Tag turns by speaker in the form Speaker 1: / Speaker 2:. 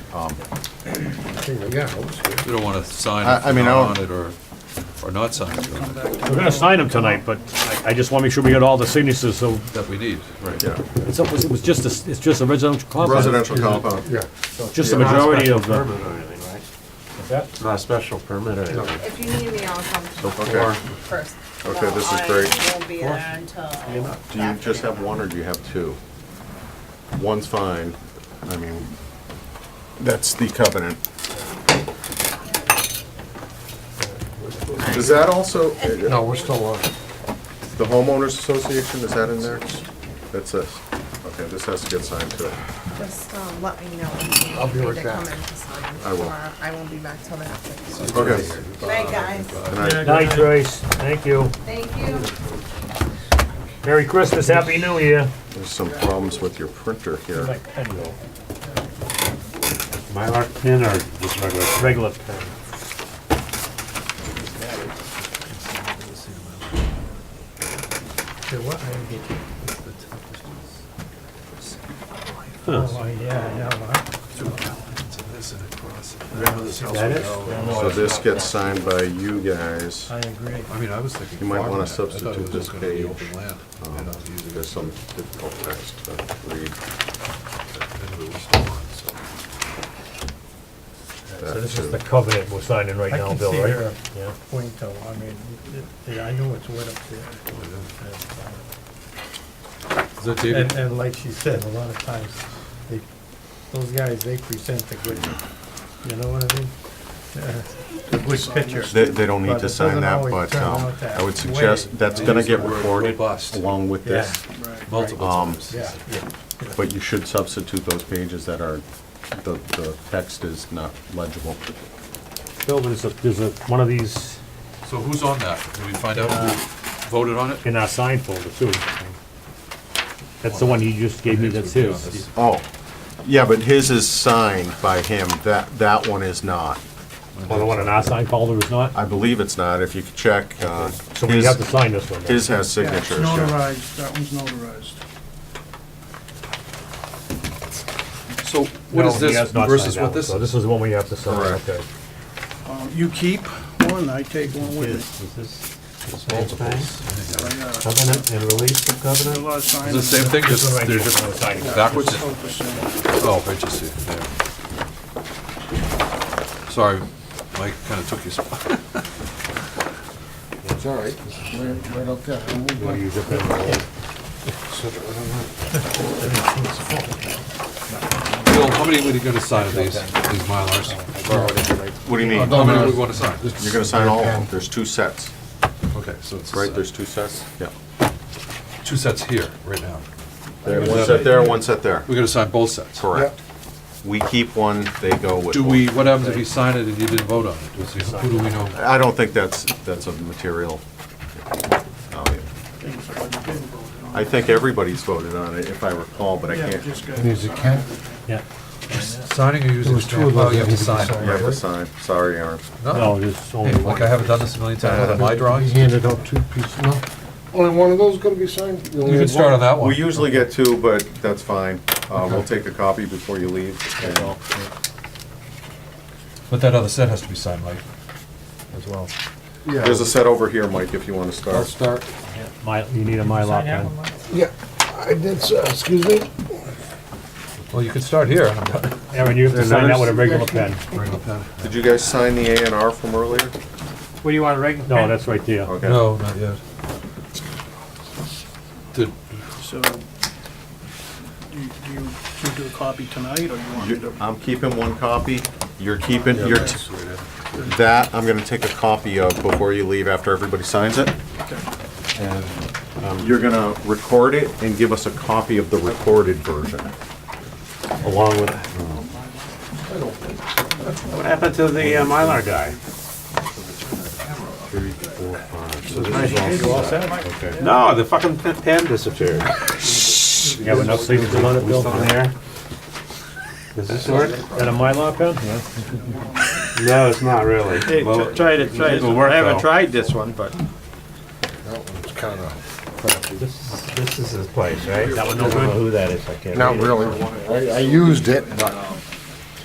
Speaker 1: Um,
Speaker 2: You don't want to sign
Speaker 1: I-
Speaker 2: if
Speaker 1: I
Speaker 2: you're
Speaker 1: mean,
Speaker 2: not
Speaker 1: I
Speaker 2: on
Speaker 1: don't-
Speaker 2: it or, or not sign it, or-
Speaker 3: We're gonna sign them tonight, but I- I just wanna make sure we got all the signatures, so
Speaker 2: that we need, right?
Speaker 3: it's, it was- it was just, a s- it's just a residential compound.
Speaker 1: Residential compound.
Speaker 4: Yeah,
Speaker 3: Just the majority of the.
Speaker 5: Permit or anything, right?
Speaker 3: What's that?
Speaker 5: Not a special permit or anything.
Speaker 6: If you need me, I'll come
Speaker 1: Okay.
Speaker 6: first.
Speaker 1: Okay, this is
Speaker 6: Well,
Speaker 1: great.
Speaker 6: I won't be there until.
Speaker 1: Do you just have one or do you have two? One's fine, I mean, that's the covenant. Is that also,
Speaker 4: no, we're still on.
Speaker 1: the homeowners association, is that in there? That's this. Okay, this has to get signed too.
Speaker 6: Just, um, let me know when you
Speaker 4: I'll be
Speaker 6: need
Speaker 4: right
Speaker 6: to come
Speaker 4: back.
Speaker 6: in to sign.
Speaker 1: I will.
Speaker 6: or I won't be back till the afternoon.
Speaker 1: Okay.
Speaker 6: Night, guys.
Speaker 1: Good night.
Speaker 7: Night, Joyce. Thank you.
Speaker 6: Thank you.
Speaker 7: Merry Christmas, Happy New Year.
Speaker 1: There's some problems with your printer here.
Speaker 5: Mylar pen or just regular?
Speaker 7: Regular pen.
Speaker 4: Okay, what?
Speaker 7: Oh, yeah,
Speaker 5: Is that it?
Speaker 1: So this gets signed by you guys. I agree. I mean, I was thinking. You might want to substitute this page. Um, There's some difficult text to read.
Speaker 7: So this is the covenant we're signing right
Speaker 4: I
Speaker 7: now,
Speaker 4: can
Speaker 7: Bill,
Speaker 4: see
Speaker 7: right?
Speaker 4: her.
Speaker 7: Yeah.
Speaker 4: Point though, I mean, it- it- I know it's wet up there.
Speaker 2: Is
Speaker 4: And,
Speaker 2: that dated?
Speaker 4: and like she said, a lot of times, they, those guys, they present the good, you know what I mean? Uh, The good picture.
Speaker 1: They, they don't need
Speaker 4: But it
Speaker 1: to sign
Speaker 4: doesn't
Speaker 1: that,
Speaker 4: always
Speaker 1: but
Speaker 4: turn
Speaker 1: um,
Speaker 4: out that
Speaker 1: I would
Speaker 4: way.
Speaker 1: suggest, that's gonna get
Speaker 2: Word
Speaker 1: recorded
Speaker 2: robust.
Speaker 1: along with
Speaker 4: Yeah,
Speaker 1: this.
Speaker 2: Multiple
Speaker 1: Um,
Speaker 2: times.
Speaker 4: yeah, yeah.
Speaker 1: But you should substitute those pages that are, the, the text is not legible.
Speaker 7: Bill, there's a, there's a, one of these
Speaker 2: So who's on that? Did we find out who voted on it?
Speaker 7: in our sign folder too. That's the one you just gave me, that's his.
Speaker 1: Oh, yeah, but his is signed by him, that, that one is not.
Speaker 7: Well, the one in our sign folder is not?
Speaker 1: I believe it's not, if you could check. uh,
Speaker 7: So we
Speaker 1: his-
Speaker 7: have to sign this one then?
Speaker 1: His has
Speaker 8: Yeah, it's
Speaker 1: signatures, yeah.
Speaker 8: notarized, that one's notarized.
Speaker 2: So what is
Speaker 7: No, he
Speaker 2: this
Speaker 7: has not
Speaker 2: versus
Speaker 7: signed
Speaker 2: what
Speaker 7: that one,
Speaker 2: this
Speaker 7: So
Speaker 2: is?
Speaker 7: this is the one we have to sign,
Speaker 1: Correct.
Speaker 7: okay.
Speaker 8: Um, You keep one, I take one with me.
Speaker 5: Is this the same thing?
Speaker 8: So I got a-
Speaker 5: Covenant and release of
Speaker 8: a
Speaker 5: covenant?
Speaker 8: lot of signs.
Speaker 2: Is it the same thing,
Speaker 7: This one
Speaker 2: just,
Speaker 7: right
Speaker 2: they're
Speaker 7: here,
Speaker 2: just
Speaker 7: one we're signing.
Speaker 2: backwards?
Speaker 8: Focus
Speaker 2: Oh, I just see it there. Sorry, Mike kinda took your spot.
Speaker 4: It's all right, right, right up there.
Speaker 7: You wanna use your pen?
Speaker 2: Bill, how many would you gonna sign of these, these Mylars?
Speaker 1: What do you mean?
Speaker 2: How many would we wanna sign?
Speaker 1: You're gonna sign all of them, there's two sets,
Speaker 2: Okay, so it's
Speaker 1: right,
Speaker 2: uh,
Speaker 1: there's two sets? Yeah.
Speaker 2: two sets here, right now.
Speaker 1: There, one set there, one set there,
Speaker 2: We're gonna sign both sets.
Speaker 1: correct. We keep one, they go with
Speaker 2: Do
Speaker 1: one.
Speaker 2: we, what happens if we sign it and you didn't vote on it? Does he- Who do we know?
Speaker 1: I don't think that's, that's a material. um,
Speaker 8: things that I didn't vote on.
Speaker 1: I think everybody's voted on it, if I recall, but I
Speaker 8: Yeah,
Speaker 1: can't.
Speaker 8: just got.
Speaker 7: Yeah.
Speaker 2: Signing or using stamp? Oh, you have to sign.
Speaker 1: You have to sign, sorry, Aaron.
Speaker 7: No, there's only
Speaker 2: Hey,
Speaker 7: one.
Speaker 2: Like I haven't done this a million times with my drawings. Uh, You
Speaker 4: handed out two pieces, no? Only one of those gonna be signed?
Speaker 2: can start on that one.
Speaker 1: We usually get two, but that's fine, uh, we'll take a copy before you leave. and-
Speaker 2: But that other set has to be signed, Mike, as well.
Speaker 1: There's a set over here, Mike, if you wanna start.
Speaker 2: start.
Speaker 7: My, you need a Mylar pen.
Speaker 4: Yeah, I did, excuse me?
Speaker 2: Well, you could start here. I'm done.
Speaker 7: Aaron, you have to sign that with a regular pen.
Speaker 2: Bring the pen.
Speaker 1: Did you guys sign the A and R from earlier?
Speaker 5: What do you want, a regular?
Speaker 7: No, that's right there.
Speaker 1: Okay.
Speaker 2: No, not yet. Did,
Speaker 8: So, do you, do you do you do a copy tonight, or you want me
Speaker 1: You-
Speaker 8: to?
Speaker 1: I'm keeping one copy, you're keeping,
Speaker 2: yeah,
Speaker 1: you're,
Speaker 2: that's
Speaker 1: t-
Speaker 2: the way it is.
Speaker 1: that, I'm gonna take a copy of before you leave, after everybody signs it.
Speaker 2: uh,
Speaker 1: And um, you're gonna record it and give us a copy of the recorded version.
Speaker 5: Along with that. What happened to the uh, Mylar guy?
Speaker 1: Three, four, five, so Okay.
Speaker 5: No, the fucking pen- pen disappeared.
Speaker 7: Yeah, with no signature on it,
Speaker 5: We
Speaker 7: Bill?
Speaker 5: still there? Does this work?
Speaker 7: Got a Mylar pen?
Speaker 5: No, it's not really. Well,
Speaker 8: try it,
Speaker 5: try it. It'll work, I haven't though.
Speaker 8: tried this one, but.
Speaker 5: This is, this is his place, right?
Speaker 7: That one no
Speaker 5: I don't know
Speaker 7: good?
Speaker 5: who that is, I can't read it.
Speaker 4: really. I, I used it, but